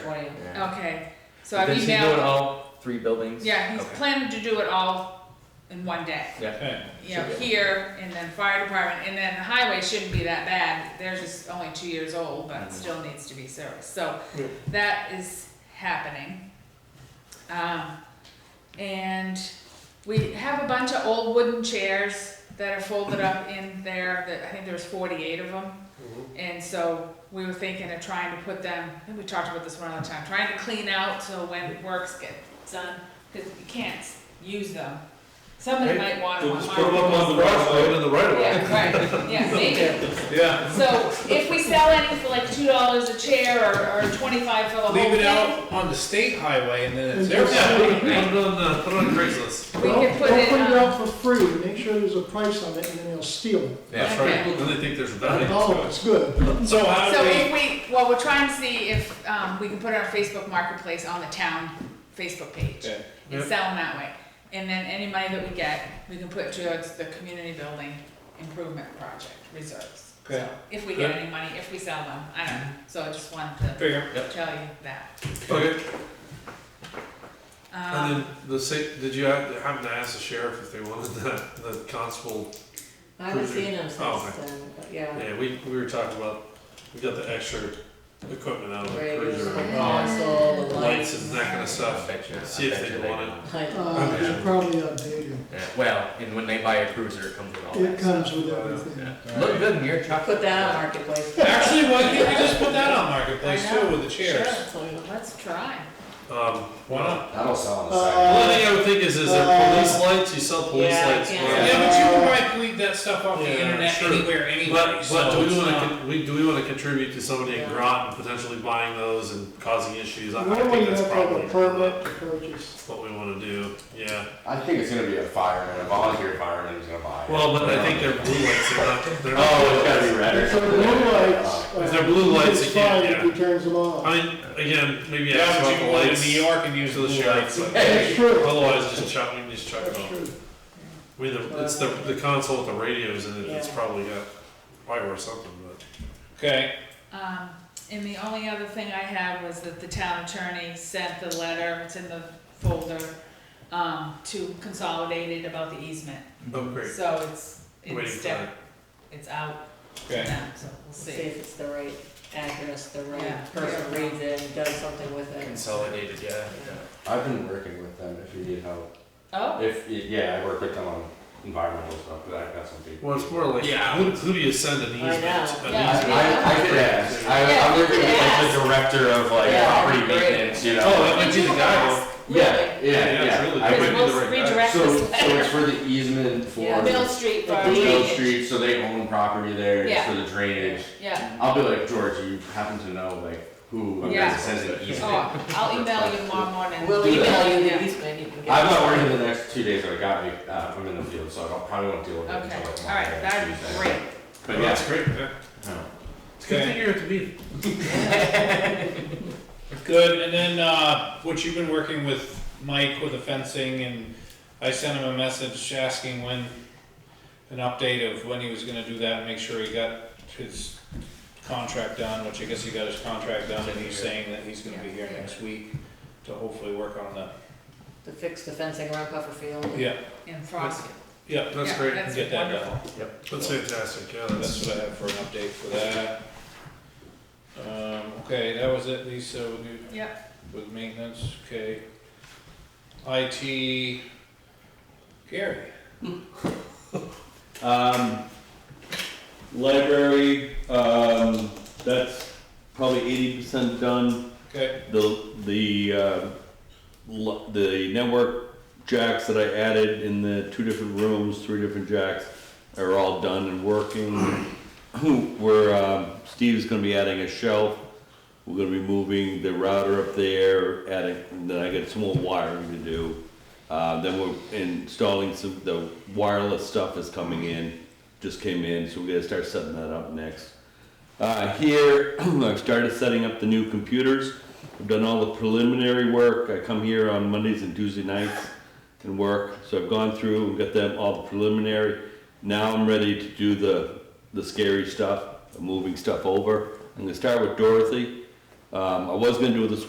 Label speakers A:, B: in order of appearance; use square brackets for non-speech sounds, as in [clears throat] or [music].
A: twentieth.
B: Yeah.
C: Okay, so I've
B: Because he's doing
C: emailed,
B: all three buildings?
C: yeah, he's
B: Okay.
C: planning to do it all in one day.
B: Yeah,
D: Okay,
C: You know,
B: Should be.
C: here, and then fire department, and then the highway shouldn't be that bad, they're just only two years old, but
B: Mhm.
C: it still needs to be serviced, so
A: Yeah.
C: that is happening. Um, and we have a bunch of old wooden chairs that are folded up in there, that, I think there's forty-eight of them. And so we were thinking of trying to put them, I think we talked about this one other time, trying to clean out so when works get done, because you can't s- use them. Somebody
E: Hey,
C: might want
E: They'll
C: one.
E: just put them up on the crossroad in the right of way.
C: Yeah, right, yeah, maybe.
E: Yeah.
C: So if we sell any for like two dollars a chair or, or twenty-five for the whole
D: leave it
C: thing,
D: out on the state highway and
C: [laughs]
D: then it's
E: Yeah,
D: their.
E: put it on, uh, put it on Craigslist.
C: we
A: Well,
C: could put
A: Don't
C: it um,
A: put it
C: on.
A: out for free, make sure there's a price on it, and then they'll steal it.
E: That's
C: Okay.
E: right, then they think there's value.
A: Oh, it's good.
D: So how do
C: So
D: we,
C: if we, well, we're trying to see if, um, we can put it on Facebook Marketplace on the town Facebook page.
D: Okay.
C: and
E: Yep.
C: sell them that way. And then any money that we get, we can put towards the community building improvement project reserves.
D: Okay.
C: So If we get
E: Good.
C: any money, if we sell them, I don't know, so I just wanted to
D: figure,
E: Yep.
C: tell you that.
E: Okay, and
C: Um,
E: then the state, did you have- happen to ask the sheriff if they wanted the, the constable?
F: I haven't
E: Cruiser.
F: seen him
E: Oh,
F: since then, but yeah.
E: Yeah, we, we were talking about, we got the extra equipment out of the
F: Radios,
E: cruiser,
F: the
E: and
F: console, Oh, the
E: lights
F: lights.
E: and
F: [laughs]
E: that kind of stuff.
B: I bet you- I
E: See if
B: bet
E: they
B: you
E: want
B: don't.
F: Like,
A: Uh, it's probably outdated.
B: Yeah, Well, and when they buy a cruiser, it comes with all that.
A: It comes
B: stuff.
A: with everything.
B: Yeah. Look good in your truck.
F: Put that on marketplace.
D: actually, why can't we just put that on marketplace
C: I know.
D: too with the chairs?
F: Sure.
C: Let's try.
E: Um, why not?
G: That'll sell on the
A: Uh,
G: side.
E: The only thing I would think is, is there police lights, you sell police
F: Yeah,
E: lights.
F: yeah.
E: why not?
D: Yeah, but you can probably leave that stuff off the
E: Yeah,
D: internet
E: sure.
D: anywhere, anyway,
E: But, but
D: so
E: do
D: it's
E: we wanna,
D: not.
E: con- we, do we wanna contribute to somebody in
F: Yeah.
E: Groton potentially buying those and causing issues? I, I
A: Normally
E: think
A: you have
E: that's
A: to have a
E: probably
A: permit to purchase.
E: what we wanna do, yeah.
G: I think it's gonna be a fireman, a volunteer fireman who's gonna buy it.
E: Well, but I think they're blue lights, they're not, they're not.
G: Oh, it's gotta be red.
A: If they're blue lights.
E: If
A: uh,
E: they're blue lights,
A: it's
E: you can't,
A: fine
E: yeah.
A: If he turns them off.
E: I mean, again, maybe ask
D: Yeah, but
E: about
D: you can
E: the
D: live in New
E: lights
D: York and use
E: to the
D: blue lights.
E: sheriff, but
A: That's true.
E: otherwise just chuck, we can just chuck it
A: That's
E: off.
A: true.
E: I mean, the- it's the, the console with the radios in it, it's
F: Yeah.
E: probably got, probably worth something, but.
D: Okay,
C: Um, and the only other thing I had was that the town attorney sent the letter, it's in the folder, um, to Consolidated about the easement.
E: Oh, great,
C: So it's,
E: waiting
C: it's,
E: for that.
C: de- it's out
D: okay.
C: now, so we'll
F: See if it's the right address, the
C: Yeah.
F: right person reads it and does something with it.
B: Consolidated, yeah.
G: I've been working with them if you need help.
C: Oh,
G: If, yeah, I work with them on environmental stuff, but I've got some people.
E: Well, it's more like, who, who do you send an
F: I
E: easement?
F: know.
E: An
C: Yeah.
G: I,
E: easement?
G: I I could ask, I,
F: Yeah,
G: I'm
F: you
G: working
F: could
G: with like
F: ask.
G: the director of like
F: Yeah,
G: property
C: great.
G: maintenance, you
E: Oh,
G: know?
E: that might be the guy. though.
G: Yeah, yeah,
E: Yeah, it's
G: yeah.
E: really
G: I
E: good.
G: would-
E: be
C: we'll
E: the right guy.
C: redirect
G: So,
C: this
G: so
C: letter.
G: [laughs] it's for the easement for
F: Yeah.
C: Mill
G: the
C: Street for
F: The
C: our
F: Beale
G: Mill
C: meeting.
G: Street, so they own property there, it's
C: Yeah.
G: for the drainage.
C: Yeah,
G: I'll be like, George, you happen to know like who of
C: Yeah.
G: this has an easement?
C: oh, I'll email you tomorrow morning.
F: We'll
G: Do that.
F: email you the easement, you can get.
G: I'm not
F: it.
G: working the next two days that I got me. Uh, I'm in the field, so I don't- probably won't deal with it
C: Okay,
G: until like
C: all right,
G: Monday. or
C: that'd be
G: Tuesday.
C: great.
G: But
E: Well,
G: yeah,
E: That's great, yeah.
G: no.
E: It's a good
D: Okay.
E: thing you're at the meeting.
D: Good, and then, uh, what you've been working with Mike with the fencing, and I sent him a message asking when, an update of when he was gonna do that, and make sure he got his contract done, which I guess he got his contract done, and he's saying that he's gonna be here next week to hopefully work on the,
F: To fix the fencing around Pufferfield.
D: yeah,
C: And Frosty.
D: yeah,
E: That's
C: Yeah,
E: great.
C: That's
D: Get that
C: wonderful.
E: That's fantastic, yeah, that's,
D: that's what I have for an update for that. Um, okay, that was it, Lisa, would you?
C: Yep,
D: With maintenance, okay. IT, Gary.
H: Um, library, um, that's probably eighty percent done.
D: Okay,
H: The, the, uh, l- the network jacks that I added in the two different rooms, three different jacks, are all done and working. We're, um, Steve's gonna be adding a shelf. We're gonna be moving the router up there, adding, and then I got some more wiring to do. Uh, then we're installing some, the wireless stuff is coming in, just came in, so we gotta start setting that up next. Uh, here, [clears throat] I've started setting up the new computers. I've done all the preliminary work. I come here on Mondays and Tuesday nights and work. So I've gone through and got them all the preliminary. Now I'm ready to do the, the scary stuff, moving stuff over. I'm gonna start with Dorothy. Um, I was gonna do it this